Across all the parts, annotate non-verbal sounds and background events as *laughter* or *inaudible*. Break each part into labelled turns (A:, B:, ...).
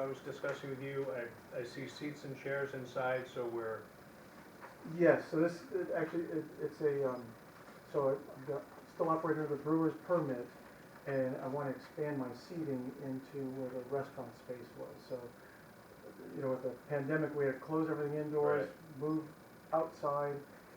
A: I was discussing with you, I, I see seats and chairs inside, so we're,
B: Yes, so this, it actually, it, it's a, um, so I- I'm go- still operating under the brewer's permit, and I wanna expand my seating into where the restaurant space was, so, you know, with the pandemic, we had to close everything indoors, move outside,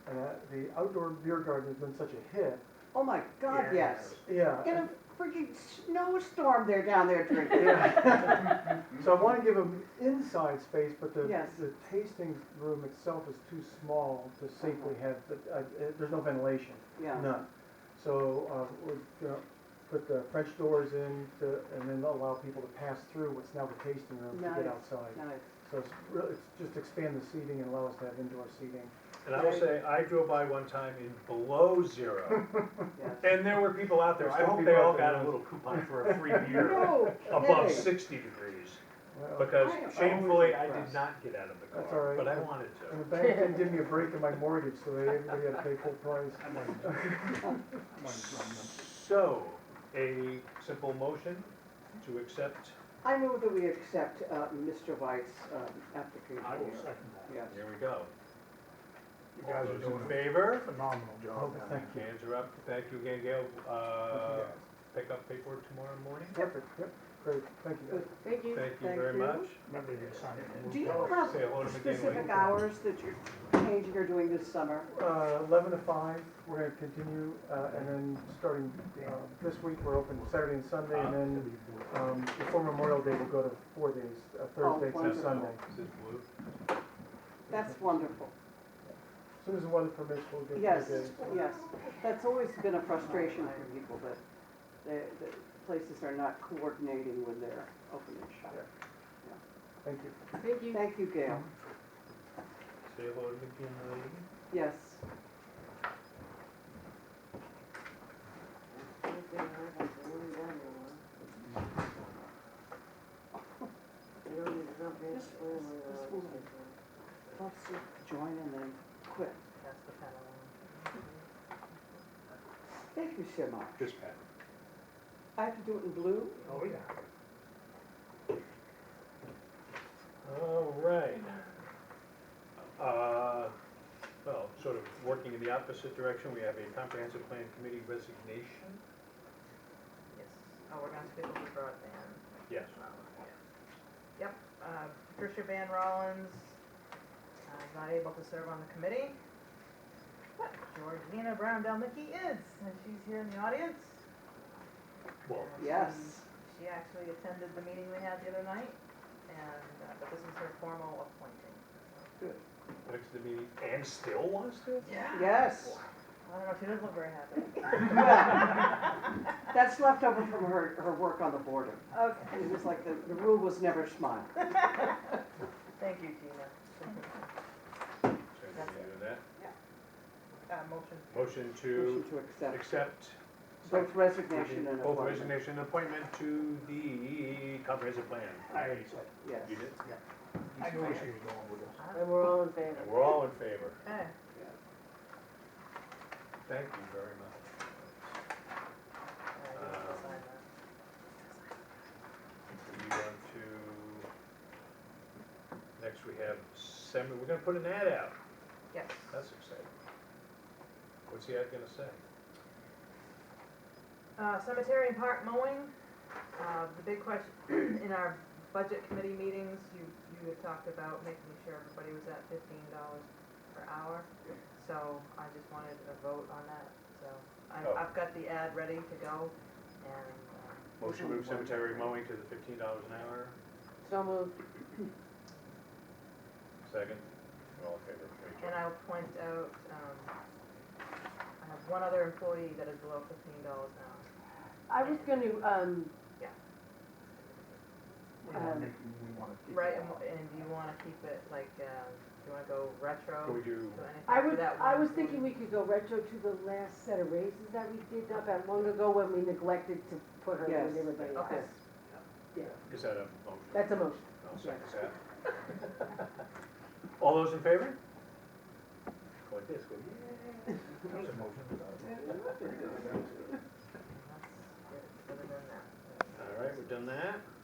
B: and that, the outdoor beer garden has been such a hit,
C: Oh my God, yes.
B: yeah. *laughs*
C: Get a freaking snowstorm there down there drinking.
A: *laughs*
B: Yeah. So I wanna give them inside space, but the,
C: Yes.
B: the tasting room itself is too small to safely have, the- uh, uh, there's no ventilation.
C: Yeah,
B: None. So, uh, we're gonna put the French doors in to, and then allow people to pass through what's now the tasting room to get
C: Nice.
B: outside.
C: nice.
B: So it's really, it's just expand the seating and allow us to have indoor seating.
A: and I will say, I drove by one time in below zero, *laughs* and there were people out there, I hope they all got a little coupon for a free beer
C: No
A: above
C: kidding.
A: sixty degrees,
B: Well,
A: because
C: I am always
A: shamefully, I did
C: impressed.
A: not get out of the
B: That's all
A: car,
B: right.
A: but I wanted
B: And the
A: to.
B: bank didn't give me a break in my mortgage, so they, everybody had to pay full price.
D: I'm on, I'm on drum now.
A: So, a simple motion to accept,
C: I move that we accept uh, Mr. White's um, application.
D: I will second that.
C: Yes.
A: here we go.
D: You
A: All
D: guys are
A: those in
D: doing a
A: favor?
D: phenomenal job down there.
B: Oh, Thank you.
A: Hands are up, thank you again, Gail, uh, pick up paperwork tomorrow morning?
B: Perfect, yep, great, thank you. guys.
C: Good. Thank you.
A: Thank you very much.
D: Remember you signed it.
C: Do you have
A: Say hello to McKinley.
C: specific hours that you're changing or doing this summer?
B: Uh, eleven to five, we're gonna continue, uh, and then starting, uh, this week, we're open Saturday and Sunday, and then Um, before Memorial Day, we'll go to four days, uh, Thursday
C: Oh, wonderful.
B: through Sunday.
A: This is blue.
C: That's wonderful.
B: As soon as the weather permits, we'll get
C: Yes,
B: four days.
C: yes. That's always been a frustration for people that the the places are not coordinating when they're opening shop.
B: Thank you.
C: Thank you. Thank you, Gail.
A: Say hello to McKinley.
C: Yes. Let's join and then quit. Thank you so much.
A: This pen.
C: I have to do it in blue?
D: Oh, yeah.
A: All right. Uh, well, sort of working in the opposite direction, we have a comprehensive plan committee resignation.
E: Yes, oh, we're going to speak with broadband.
A: Yes.
E: Yep, uh, Patricia Van Rollins uh, is not able to serve on the committee. But Georgina Brown Delmicky is, and she's here in the audience.
A: Well,
E: And
C: Yes.
E: She actually attended the meeting we had the other night, and, uh, but this is her formal appointing.
A: next to the meeting, and still wants to?
E: Yeah.
C: Yes.
E: I don't know, she doesn't look very *laughs* happy.
C: That's left over from her, her work on the border.
E: Okay.
C: It was like the, the rule was never smile.
E: Thank you, Gina.
A: So we
E: That's
A: can do that.
E: Uh, motion.
A: Motion
C: Motion
A: to
C: to accept
A: accept.
C: both resignation and
A: Both
C: appointment.
A: resignation and appointment to the comprehensive plan.
D: I already said,
C: Yes.
A: You did?
D: I knew where she was going with this.
E: Uh,
C: we're all in favor.
A: And we're all in favor.
E: Okay.
A: Thank you very much.
E: Uh, you have to sign that.
A: We want to, next we have semi, we're gonna put an ad out,
E: Yes.
A: that's exciting. What's the ad gonna say?
E: Uh, cemetery and park mowing, uh, the big question, *clears throat* in our budget committee meetings, you, you had talked about making sure everybody was at fifteen dollars per hour. So I just wanted a vote on that, so
A: Oh.
E: I, I've got the ad ready to go and, uh,
A: Motion to move cemetery mowing to the fifteen dollars an hour,
C: So moved.
A: second, all in favor, Rachel?
E: and I'll point out, um, I have one other employee that is below fifteen dollars an hour.
F: I was gonna, um,
D: We wanna
F: Um,
D: make, we wanna keep it
E: Right, and,
D: all.
E: wh- and do you wanna keep it like, um, do you wanna go retro?
A: Can we do,
E: Do anything
F: I
E: for
F: would,
E: that
F: I
E: one
F: was
E: employee?
F: thinking we could go retro to the last set of raises that we did not that long ago when we neglected to put her
C: Yes.
F: with everybody else.
E: Okay.
A: is that a motion?
F: That's a motion.
A: I'll second that. All those in favor? Go like this, go, yeah.
D: There's a motion without a vote.
E: That's good, it's better than that.
A: All right, we've done that.